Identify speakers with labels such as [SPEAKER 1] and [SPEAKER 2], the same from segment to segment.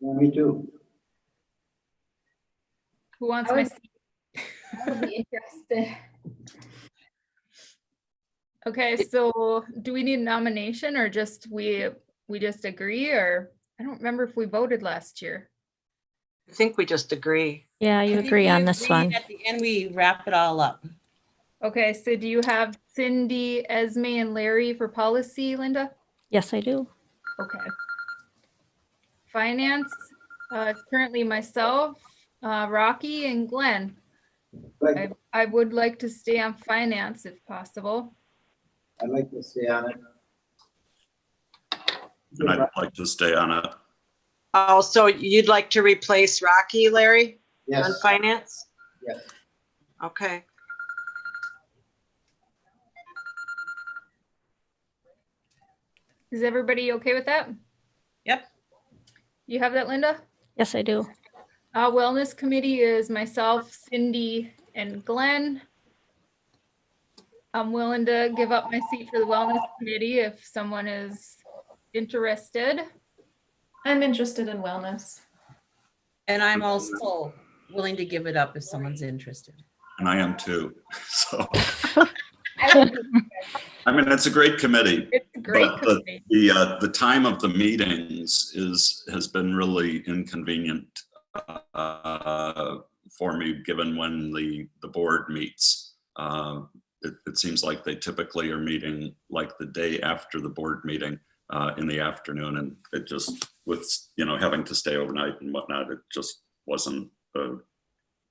[SPEAKER 1] Me too.
[SPEAKER 2] Who wants
[SPEAKER 3] I
[SPEAKER 2] my
[SPEAKER 3] would-
[SPEAKER 2] seat?
[SPEAKER 3] I would be interested.
[SPEAKER 2] Okay, so do we need nomination or just we, we just agree or? I don't remember if we voted last year.
[SPEAKER 4] I think we just agree.
[SPEAKER 5] Yeah, you
[SPEAKER 6] I think
[SPEAKER 5] agree
[SPEAKER 6] we
[SPEAKER 5] on this
[SPEAKER 6] agree,
[SPEAKER 5] one.
[SPEAKER 6] At the end, we wrap it all up.
[SPEAKER 2] Okay, so do you have Cindy, Esme and Larry for policy, Linda?
[SPEAKER 5] Yes, I do.
[SPEAKER 2] Okay. Finance, uh, it's currently myself, uh, Rocky and Glenn.
[SPEAKER 1] Like,
[SPEAKER 2] I would like to stay on finance if possible.
[SPEAKER 1] I'd like to stay on it.
[SPEAKER 7] And I'd like to stay on it.
[SPEAKER 4] Oh, so you'd like to replace Rocky, Larry, on
[SPEAKER 1] Yes,
[SPEAKER 4] finance?
[SPEAKER 1] Yes.
[SPEAKER 4] Okay,
[SPEAKER 2] Is everybody okay with that?
[SPEAKER 6] Yep.
[SPEAKER 2] You have that, Linda?
[SPEAKER 5] Yes, I do.
[SPEAKER 2] Uh, wellness committee is myself, Cindy and Glenn. I'm willing to give up my seat for the wellness committee if someone is interested.
[SPEAKER 8] I'm interested in wellness.
[SPEAKER 6] And I'm also willing to give it up if someone's interested.
[SPEAKER 7] And I am too. So,
[SPEAKER 3] I would be-
[SPEAKER 7] I mean, it's a great committee.
[SPEAKER 2] It's a great
[SPEAKER 7] But the-
[SPEAKER 2] committee.
[SPEAKER 7] The, uh, the time of the meetings is, has been really inconvenient uh, for me, given when the, the board meets. Um, It, it seems like they typically are meeting like the day after the board meeting uh, in the afternoon. And it just with, you know, having to stay overnight and whatnot, it just wasn't uh,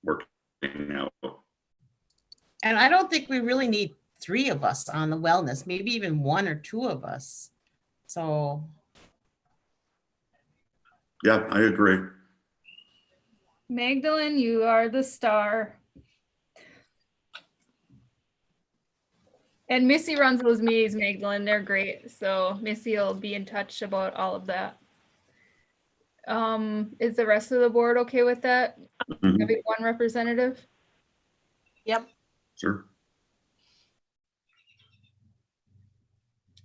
[SPEAKER 7] working out.
[SPEAKER 6] And I don't think we really need three of us on the wellness, maybe even one or two of us. So,
[SPEAKER 7] Yeah, I agree.
[SPEAKER 2] Magdalene, you are the star. And Missy runs those meetings, Magdalene. They're great. So Missy will be in touch about all of that. Um, is the rest of the board okay with that?
[SPEAKER 7] Mhm.
[SPEAKER 2] Having one representative?
[SPEAKER 7] Sure.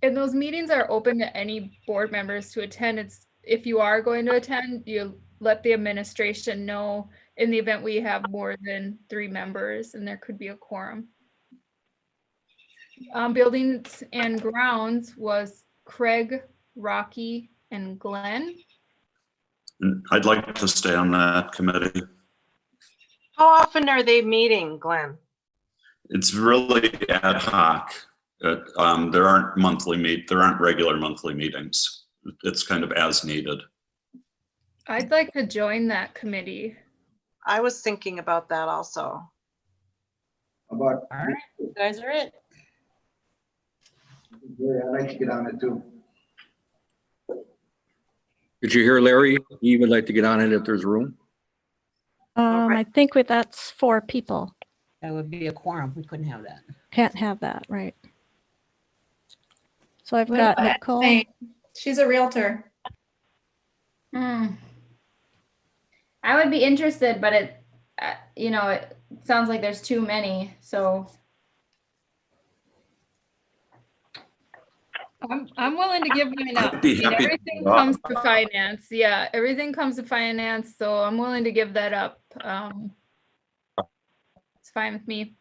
[SPEAKER 2] And those meetings are open to any board members to attend. It's, if you are going to attend, you let the administration know in the event we have more than three members and there could be a quorum. Um, buildings and grounds was Craig, Rocky, and Glenn.
[SPEAKER 7] And I'd like to stay on that committee.
[SPEAKER 4] how often are they meeting, Glenn?
[SPEAKER 7] It's really ad hoc. It, um, there aren't monthly meet, there aren't regular monthly meetings. It's kind of as needed.
[SPEAKER 2] I'd like to join that committee.
[SPEAKER 4] I was thinking about that also.
[SPEAKER 1] about,
[SPEAKER 6] all right, you guys are it.
[SPEAKER 1] yeah, I'd like to get on it too.
[SPEAKER 9] Did you hear Larry? He would like to get on it if there's room.
[SPEAKER 5] Um, I
[SPEAKER 4] right.
[SPEAKER 5] think we- that's four people.
[SPEAKER 6] That would be a quorum. We couldn't have that.
[SPEAKER 5] Can't have that, right? So I've
[SPEAKER 8] What
[SPEAKER 5] got
[SPEAKER 8] about
[SPEAKER 5] Nicole.
[SPEAKER 8] Hey, She's a realtor.
[SPEAKER 3] Hmm. I would be interested, but it, uh, you know, it sounds like there's too many, so.
[SPEAKER 2] I'm, I'm willing to give mine up.
[SPEAKER 7] I'd be
[SPEAKER 2] I mean,
[SPEAKER 7] happy to
[SPEAKER 2] Everything
[SPEAKER 7] give up.
[SPEAKER 2] comes to finance. Yeah, everything comes to finance, so I'm willing to give that up. Um, It's fine with me.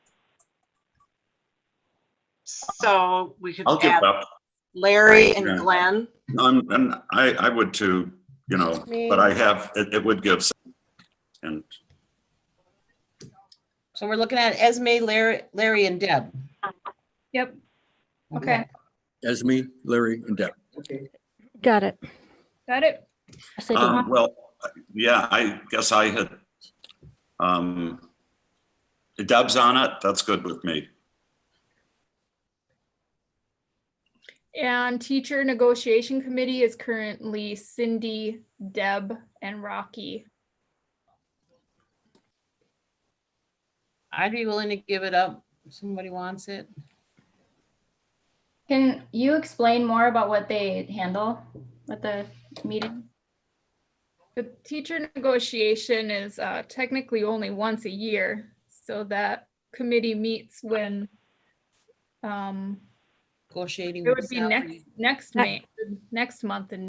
[SPEAKER 4] So we could
[SPEAKER 7] I'll give
[SPEAKER 4] add
[SPEAKER 7] up.
[SPEAKER 4] Larry and
[SPEAKER 7] Yeah.
[SPEAKER 4] Glenn.
[SPEAKER 7] Um, and I, I would too, you know, but I have, it, it would give. some- And
[SPEAKER 6] So we're looking at Esme, Larry, Larry and Deb.
[SPEAKER 2] Yep. Okay,
[SPEAKER 9] Esme, Larry, and Deb.
[SPEAKER 1] Okay,
[SPEAKER 5] Got it.
[SPEAKER 2] got it.
[SPEAKER 5] Yes, I do.
[SPEAKER 7] Um, Well, yeah, I guess I had, um, Deb's on it. That's good with me.
[SPEAKER 2] And teacher negotiation committee is currently Cindy, Deb, and Rocky.
[SPEAKER 6] I'd be willing to give it up if somebody wants it.
[SPEAKER 3] Can you explain more about what they handle at the meeting?
[SPEAKER 2] The teacher negotiation is uh, technically only once a year, so that committee meets when um,
[SPEAKER 6] Negotiating.
[SPEAKER 2] it
[SPEAKER 6] with
[SPEAKER 2] would be
[SPEAKER 6] salary.
[SPEAKER 2] next, next May, next month in